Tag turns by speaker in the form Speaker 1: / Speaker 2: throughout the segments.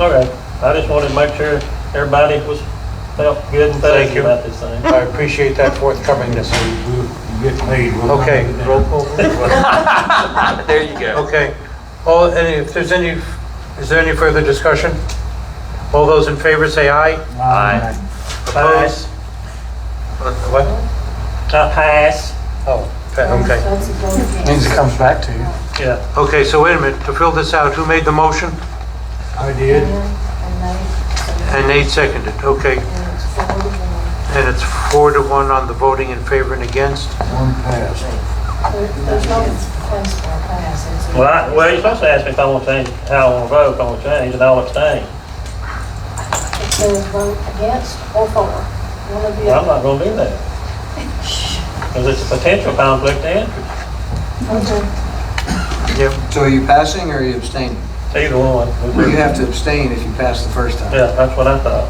Speaker 1: Okay, I just wanted to make sure everybody was, felt good and
Speaker 2: Thank
Speaker 1: safe
Speaker 2: you.
Speaker 1: about this thing.
Speaker 2: I appreciate that forthcomingness.
Speaker 3: Get paid. we'll-
Speaker 2: Okay, roll call.
Speaker 4: There you go.
Speaker 2: Okay. All, any, if there's any, is there any further discussion? All those in favor say aye.
Speaker 4: Aye.
Speaker 2: Opposed? What?
Speaker 1: I pass,
Speaker 2: Oh, pa- okay.
Speaker 5: That's a vote again.
Speaker 3: Means it comes back to you.
Speaker 1: yeah.
Speaker 2: Okay, so wait a minute, to fill this out, who made the motion?
Speaker 3: I
Speaker 5: And
Speaker 3: did.
Speaker 5: they-
Speaker 2: And Nate seconded, okay.
Speaker 5: and it's four to one.
Speaker 2: And it's four to one on the voting in favor and against.
Speaker 3: One pass.
Speaker 5: There- There's no defense for a pass. It's-
Speaker 1: Well, I, well, you're supposed to ask me if I want to change, how I want to vote, if I want to change, and I'll abstain.
Speaker 5: It says vote against or for, one of the
Speaker 1: Well, I'm not
Speaker 5: other.
Speaker 1: gonna do that. Because it's a potential conflict of interest,
Speaker 5: Okay.
Speaker 2: Yep,
Speaker 6: So are you passing or are you abstaining?
Speaker 1: It's either one.
Speaker 6: You have to abstain if you pass the first time.
Speaker 1: Yeah, that's what I thought.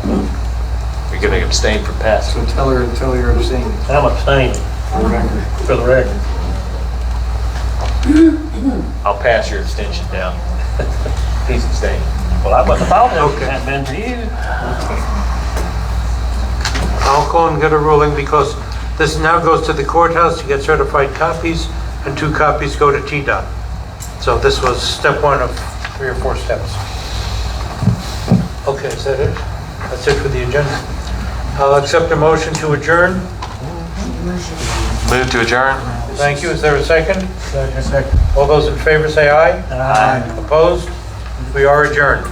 Speaker 4: You're gonna abstain from passing.
Speaker 6: So tell her, tell her you're abstaining.
Speaker 1: I'm abstaining
Speaker 6: for the record.
Speaker 1: for the record.
Speaker 4: I'll pass your abstention down. He's abstaining.
Speaker 1: Well, I wouldn't have thought
Speaker 2: Okay.
Speaker 1: it had been for you.
Speaker 2: I'll go and get a ruling because this now goes to the courthouse to get certified copies, and two copies go to T-Dot. So this was step one of three or four steps. Okay, is that it? That's it for the agenda. I'll accept a motion to adjourn.
Speaker 4: Move to adjourn?
Speaker 2: Thank you. Is there a second?
Speaker 3: Second. Second.
Speaker 2: All those in favor say aye. Aye. Opposed? We are adjourned.